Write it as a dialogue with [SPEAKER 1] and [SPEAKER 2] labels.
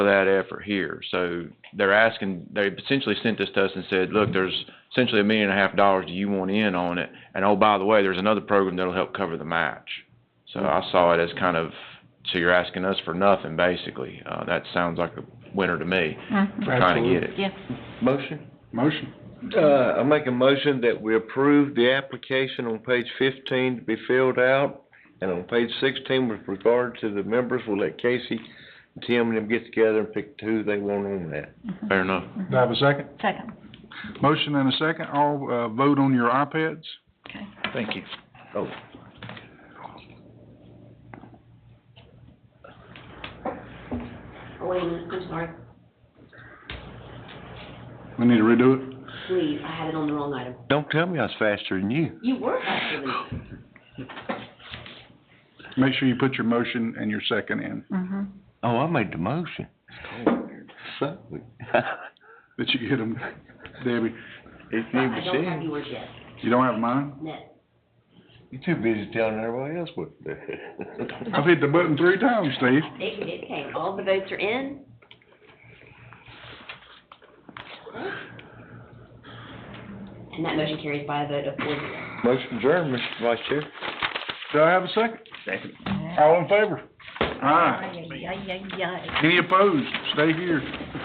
[SPEAKER 1] for that effort here. So they're asking, they essentially sent this to us and said, look, there's essentially a million and a half dollars do you want in on it? And oh, by the way, there's another program that'll help cover the match. So I saw it as kind of, so you're asking us for nothing, basically. Uh, that sounds like a winner to me for trying to get it.
[SPEAKER 2] Yeah.
[SPEAKER 3] Motion?
[SPEAKER 4] Motion.
[SPEAKER 3] Uh, I make a motion that we approve the application on page fifteen to be filled out, and on page sixteen with regard to the members, we'll let Casey, and Tim, and them get together and pick who they want on that.
[SPEAKER 1] Fair enough.
[SPEAKER 4] Do I have a second?
[SPEAKER 2] Second.
[SPEAKER 4] Motion and a second. All, uh, vote on your iPads.
[SPEAKER 2] Okay.
[SPEAKER 4] Thank you.
[SPEAKER 3] Oh,
[SPEAKER 5] Oh, wait, a minute, I'm sorry,
[SPEAKER 4] We need to redo it.
[SPEAKER 5] please, I had it on the wrong item.
[SPEAKER 3] don't tell me I was faster than you.
[SPEAKER 5] You were faster than me.
[SPEAKER 4] Make sure you put your motion and your second in,
[SPEAKER 2] Mm-hmm.
[SPEAKER 3] Oh, I made the motion. So,
[SPEAKER 4] that you get them. Debbie,
[SPEAKER 3] If you
[SPEAKER 5] I
[SPEAKER 3] were
[SPEAKER 5] don't have
[SPEAKER 3] saying,
[SPEAKER 5] yours yet,
[SPEAKER 4] you don't have mine?
[SPEAKER 5] no.
[SPEAKER 3] you're too busy telling everybody else what to do.
[SPEAKER 4] I've hit the button three times, Steve.
[SPEAKER 5] It, it came, all the votes are in. And that motion carries by a vote of four zero.
[SPEAKER 3] Motion adjourned, Mr. Vice Chair.
[SPEAKER 4] Do I have a second?
[SPEAKER 3] Second.
[SPEAKER 4] All in favor? Aye.
[SPEAKER 2] Ay, ay, ay, ay.
[SPEAKER 4] Any opposed? Stay here.